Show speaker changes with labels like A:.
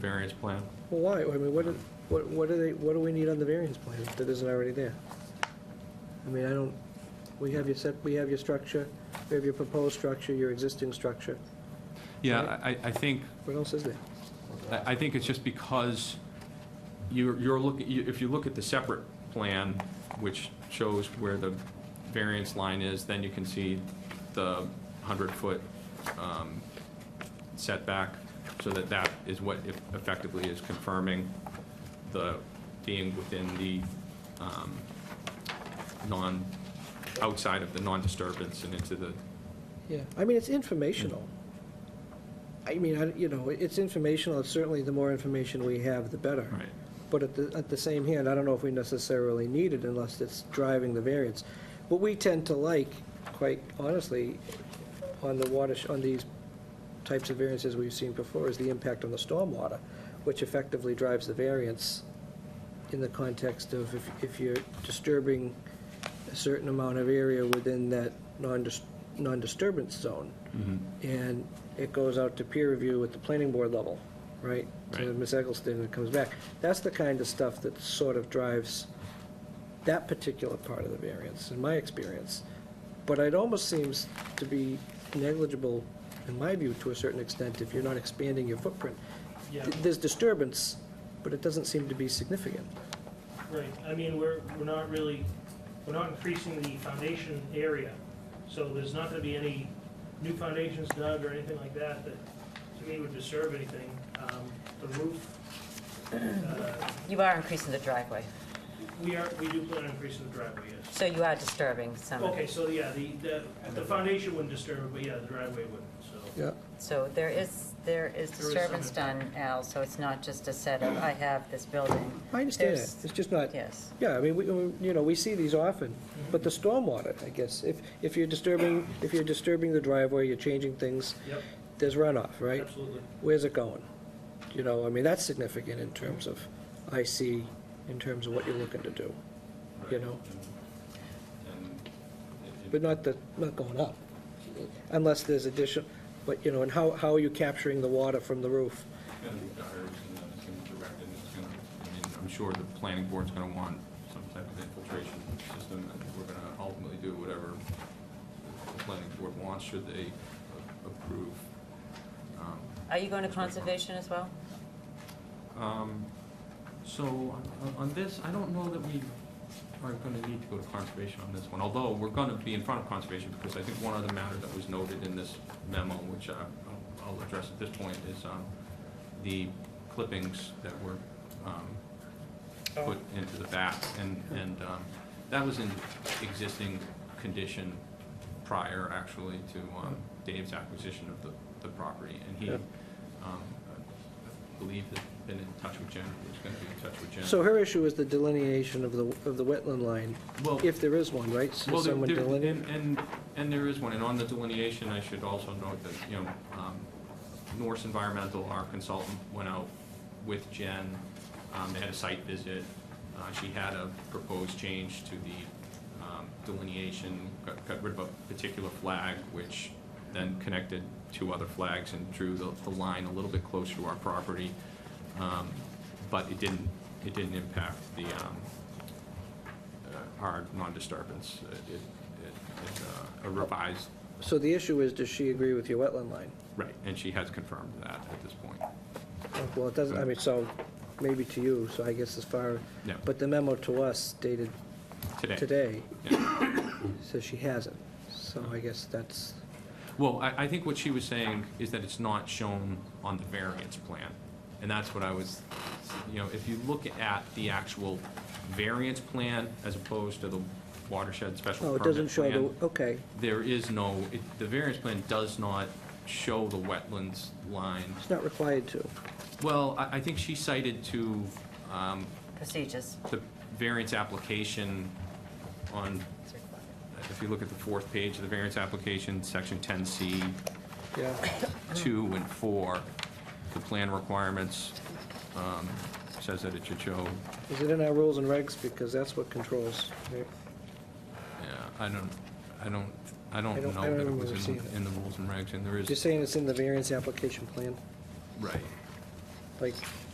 A: variance plan.
B: Well, why? I mean, what, do- what, what do they, what do we need on the variance plan that isn't already there? I mean, I don't, we have your set, we have your structure, we have your proposed structure, your existing structure.
A: Yeah, I, I think,
B: What else is there?
A: I I think it's just because you're, you're looking, you- if you look at the separate plan, which shows where the variance line is, then you can see the 100-foot setback, so that that is what eff- effectively is confirming the, being within the um, non, outside of the non-disturbance and into the
B: Yeah, I mean, it's informational. I mean, I, you know, it's informational, it's certainly the more information we have, the better.
A: Right.
B: But at the, at the same hand, I don't know if we necessarily need it unless it's driving the variance. What we tend to like, quite honestly, on the water, on these types of variances we've seen before is the impact on the stormwater, which effectively drives the variance in the context of if, if you're disturbing a certain amount of area within that non-dis- non-disturbance zone. And it goes out to peer review at the planning board level, right? To
A: Right.
B: Ms. Eggleston, and it comes back. That's the kind of stuff that sort of drives that particular part of the variance, in my experience. But it almost seems to be negligible, in my view, to a certain extent, if you're not expanding your footprint.
C: Yeah,
B: Th- There's disturbance, but it doesn't seem to be significant.
C: right. I mean, we're, we're not really, we're not increasing the foundation area. So there's not gonna be any new foundations dug or anything like that that, to me, would disturb anything. Um, The roof, uh,
D: You are increasing the driveway,
C: we are, we do plan on increasing the driveway, yes.
D: so you are disturbing some of
C: Okay,
D: it.
C: so yeah, the, the, the foundation wouldn't disturb it, but yeah, the driveway would, so.
B: Yeah.
D: So there is, there
C: There is
D: is
C: some
D: disturbance done, Al, so it's not just a set of, I have this building.
B: I understand it,
D: There's-
B: it's just not,
D: Yes,
B: yeah, I mean, we, we- you know, we see these often, but the stormwater, I guess, if, if you're disturbing, if you're disturbing the driveway, you're changing things,
C: Yep,
B: there's runoff, right?
C: absolutely.
B: Where's it going? You know, I mean, that's significant in terms of, I see, in terms of what you're looking to do, you know? But not the, not going up, unless there's addition, but, you know, and how, how are you capturing the water from the roof?
A: gonna be gutters, and then it's gonna be directed, and it's gonna, I mean, I'm sure the planning board's gonna want some type of infiltration system, and we're gonna ultimately do whatever the planning board wants, should they a- approve. Um,
D: are you going to conservation as well?
A: um, So, on- on this, I don't know that we are gonna need to go to conservation on this one, although we're gonna be in front of conservation, because I think one other matter that was noted in this memo, which I- I'll I'll address at this point, is um, the clippings that were um, put into the back, and, and um, that was in existing condition prior, actually, to um, Dave's acquisition of the, the property, and he,
B: Yeah.
A: um, I believe, had been in touch with Jen, was gonna be in touch with Jen.
B: So her issue is the delineation of the, of the wetland line,
A: Well,
B: if there is one, right? So
A: well, there-
B: someone
A: there-
B: deline-
A: and, and, and there is one, and on the delineation, I should also note that, you know, um, Norse Environmental, our consultant, went out with Jen, um, they had a site visit, uh, she had a proposed change to the, um, delineation, got, got rid of a particular flag, which then connected two other flags and drew the, the line a little bit closer to our property. Um, but it didn't, it didn't impact the, um, uh, our non-disturbance. It- it- it- It's uh, a revised,
B: So the issue is, does she agree with your wetland line?
A: right, and she has confirmed that at this point.
B: Well, it doesn't, I mean, so, maybe to you, so I guess as far,
A: Yeah.
B: but the memo to us dated
A: Today.
B: today
A: Yeah.
B: says she hasn't, so I guess that's,
A: Well, I, I think what she was saying is that it's not shown on the variance plan. And that's what I was, you know, if you look at the actual variance plan as opposed to the watershed special
B: oh,
A: permit
B: it doesn't show
A: plan,
B: the, okay,
A: There is no, it- the variance plan does not show the wetlands line.
B: it's not required to.
A: Well, I, I think she cited to, um,
D: Procedures.
A: the variance application on,
D: It's required.
A: if you look at the fourth page of the variance application, section 10C,
B: Yeah,
A: 2 and 4, the plan requirements, um, says that it should show,
B: is it in our rules and regs, because that's what controls, right?
A: yeah, I don't, I don't, I
B: I don't-
A: don't
B: I don't
A: know that it
B: remember
A: was in,
B: seeing it.
A: in the rules and regs, and there
B: You're
A: is,
B: saying it's in the variance application plan?
A: right.
B: like